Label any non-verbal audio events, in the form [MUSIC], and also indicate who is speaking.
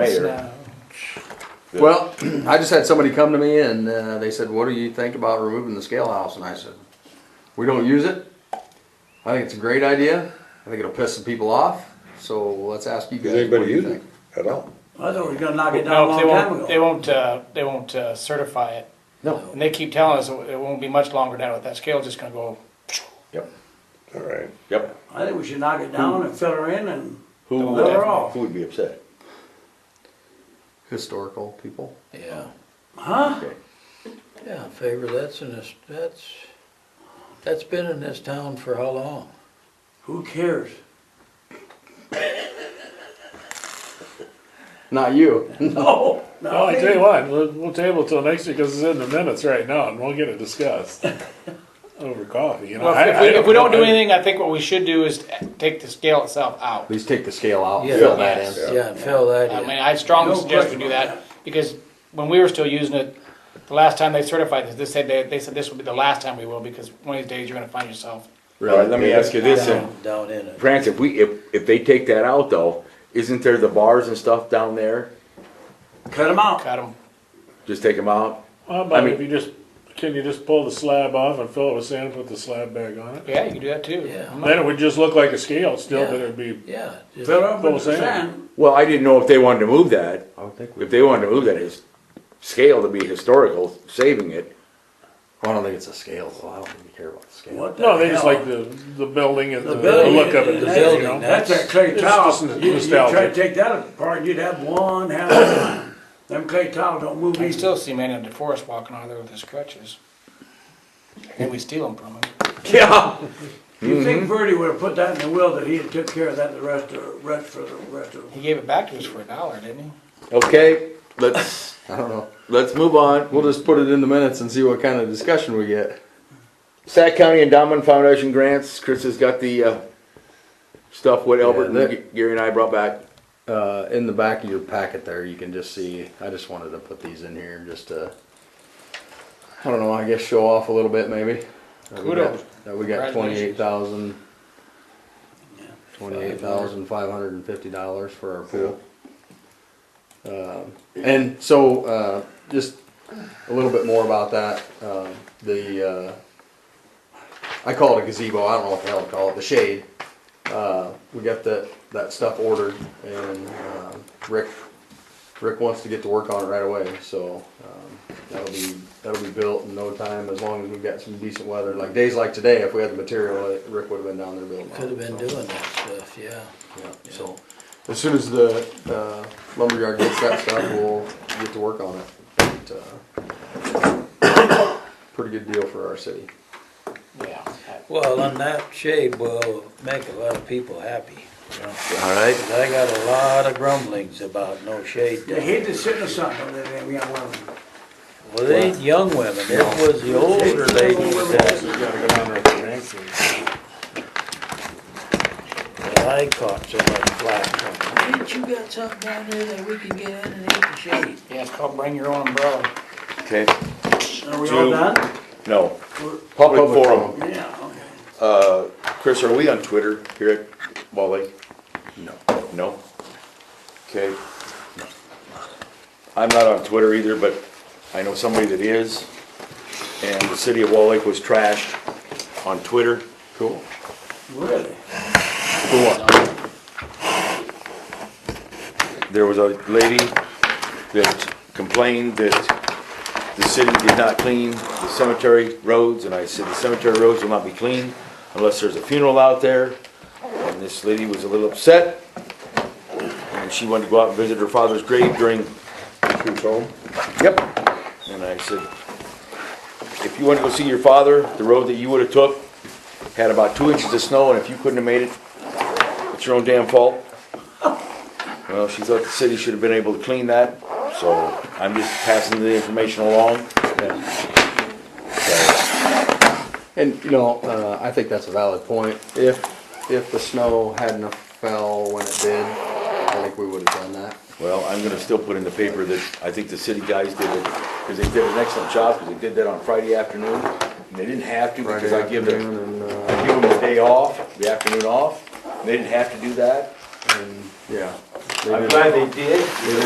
Speaker 1: mayor. that-
Speaker 2: Well, [CLEARS THROAT] I just had somebody come to me and uh, they said, what do you think about removing the scale house? And I said, we don't use it. I think it's a great idea. I think it'll piss some people off. So let's ask you
Speaker 1: Does
Speaker 2: guys. what
Speaker 1: anybody
Speaker 2: do you
Speaker 1: use it
Speaker 2: think?
Speaker 1: at all?
Speaker 3: I thought we were gonna knock it down a
Speaker 4: No,
Speaker 3: long
Speaker 4: they
Speaker 3: time
Speaker 4: won't, they
Speaker 3: ago.
Speaker 4: won't, uh, they won't uh, certify it.
Speaker 1: No.
Speaker 4: And they keep telling us it won't be much longer now with that scale, just gonna go,
Speaker 5: Yep,
Speaker 1: All right.
Speaker 5: yep.
Speaker 3: I think we should knock it down and fill her in and,
Speaker 5: Who
Speaker 4: Don't
Speaker 5: would,
Speaker 4: let her
Speaker 3: off.
Speaker 5: who would be upset?
Speaker 2: Historical people.
Speaker 6: Yeah,
Speaker 3: huh?
Speaker 6: yeah, favor, that's in this, that's, that's been in this town for how long?
Speaker 3: Who cares?
Speaker 2: Not you. [LAUGHS]
Speaker 3: No,
Speaker 7: Well,
Speaker 3: not
Speaker 7: Oh, I tell you
Speaker 3: me.
Speaker 7: what, we'll, we'll table till next week because it's in the minutes right now, and we'll get it discussed over coffee. You know,
Speaker 4: well,
Speaker 7: I-
Speaker 4: if
Speaker 7: I
Speaker 4: we, if we don't
Speaker 7: know.
Speaker 4: do anything, I think what we should do is take the scale itself out.
Speaker 2: Please take the scale out.
Speaker 6: Yeah.
Speaker 2: Fill that in.
Speaker 6: Yeah, and fill that
Speaker 4: I mean,
Speaker 6: in.
Speaker 4: I strongly
Speaker 3: No
Speaker 4: suggest we
Speaker 3: question
Speaker 4: do
Speaker 3: about
Speaker 4: that, because when we were still using it, the last time they certified this, they said, they, they said this will be the last time we will, because one of these days you're gonna find yourself.
Speaker 5: All right, let me ask you this, and,
Speaker 6: Down down in it.
Speaker 5: France, if we, if, if they take that out though, isn't there the bars and stuff down there?
Speaker 3: Cut them out.
Speaker 4: Got 'em.
Speaker 5: Just take them out?
Speaker 7: How about
Speaker 5: I mean-
Speaker 7: if you just can you just pull the slab off and fill it with sand and put the slab back on it?
Speaker 4: yeah, you can do that too.
Speaker 6: Yeah.
Speaker 7: Then it would just look like a scale still, but
Speaker 6: Yeah.
Speaker 7: it'd be
Speaker 6: Yeah, just-
Speaker 3: Fill her up
Speaker 7: Full
Speaker 3: with the
Speaker 7: sand.
Speaker 3: sand.
Speaker 5: Well, I didn't know if they wanted to move that.
Speaker 2: I would think we,
Speaker 5: If they wanted to move that, it's scale to be historical, saving it.
Speaker 2: I don't think it's a scale, so I don't think you care about the scale.
Speaker 3: What the
Speaker 7: no. They just
Speaker 3: hell?
Speaker 7: like the the building and the, the
Speaker 6: building,
Speaker 7: look of it.
Speaker 6: the
Speaker 7: just,
Speaker 6: building,
Speaker 7: you know?
Speaker 6: that-
Speaker 3: That's that clay
Speaker 7: It's
Speaker 3: tile.
Speaker 7: just
Speaker 3: You, you
Speaker 7: nostalgia.
Speaker 3: try to take that apart, you'd have one hell of a time. Them clay tile don't move
Speaker 4: I
Speaker 3: easy.
Speaker 4: still see man in DeForest walking out of there with his crutches. And we steal them from him.
Speaker 5: Yeah.
Speaker 3: You think
Speaker 7: Mm-hmm.
Speaker 3: Verdi would've put that in the will that he'd took care of that the rest of, rest for the rest of.
Speaker 4: He gave it back to us for a dollar, didn't he?
Speaker 5: Okay, let's,
Speaker 2: I don't know.
Speaker 5: let's move on.
Speaker 2: We'll just put it in the minutes and see what kind of discussion we get.
Speaker 5: Sac County Endowment Foundation grants, Chris has got the, uh, stuff what Albert
Speaker 2: Yeah,
Speaker 5: and
Speaker 2: that-
Speaker 5: Gary and I brought back.
Speaker 2: Uh, in the back of your packet there, you can just see, I just wanted to put these in here just to, I don't know, I guess show off a little bit maybe. That we got-
Speaker 4: Kudos.
Speaker 2: That we got twenty-eight
Speaker 4: Congratulations.
Speaker 2: thousand, twenty-eight thousand five hundred and fifty dollars for our pool. Um, and so, uh, just a little bit more about that, um, the, uh, I call it a gazebo, I don't know what the hell to call it, the shade. Uh, we got that, that stuff ordered and, um, Rick, Rick wants to get to work on it right away, so, um, that'll be, that'll be built in no time as long as we've got some decent weather. Like days like today, if we had the material, Rick would've been down there building. it.
Speaker 6: Could've been doing that stuff, yeah.
Speaker 2: Yeah, so, as soon as the, uh, lumberyard gets that stuff, we'll get to work on it. But, uh, Pretty good deal for our city.
Speaker 4: Yeah.
Speaker 6: Well, and that shade will make a lot of people happy. you know.
Speaker 5: All right.
Speaker 6: 'Cause I got a lot of grumblings about no shade.
Speaker 3: They
Speaker 6: down.
Speaker 3: hate to sit in the sun when they're them young women.
Speaker 6: Well, they ain't young women, it was the older ladies that,
Speaker 7: Gotta go down there with the ranks and-
Speaker 6: that I caught so much flack from. Ain't you got something down there that we can get in and hit the shade?
Speaker 4: Yeah, it's called bring your own umbrella.
Speaker 5: Okay,
Speaker 3: Are we all
Speaker 5: Two.
Speaker 3: done?
Speaker 5: no. Public forum.
Speaker 3: Yeah, okay.
Speaker 5: Uh, Chris, are we on Twitter here at Ball Lake?
Speaker 2: No.
Speaker 5: No? Okay. I'm not on Twitter either, but I know somebody that is. And the city of Wall Lake was trashed on Twitter.
Speaker 2: Cool.
Speaker 3: Really?
Speaker 5: There was a lady that complained that the city did not clean the cemetery roads. And I said, the cemetery roads will not be cleaned unless there's a funeral out there. And this lady was a little upset. And she wanted to go out and visit her father's grave during
Speaker 1: Shoot home.
Speaker 5: Yep. And I said, if you wanted to go see your father, the road that you would have took had about two inches of snow, and if you couldn't have made it, it's your own damn fault. Well, she thought the city should have been able to clean that, so I'm just passing the information along. So,
Speaker 2: And, you know, uh, I think that's a valid point. If, if the snow hadn't have fell when it did, I think we would've done that.
Speaker 5: Well, I'm gonna still put in the paper that I think the city guys did it, because they did an excellent job, because they did that on Friday afternoon. And they didn't have to, because
Speaker 2: Friday
Speaker 5: I give them,
Speaker 2: afternoon and,
Speaker 5: I
Speaker 2: uh,
Speaker 5: give them the day off, the afternoon off, and they didn't have to do that.
Speaker 2: and, yeah.
Speaker 5: I'm glad they did.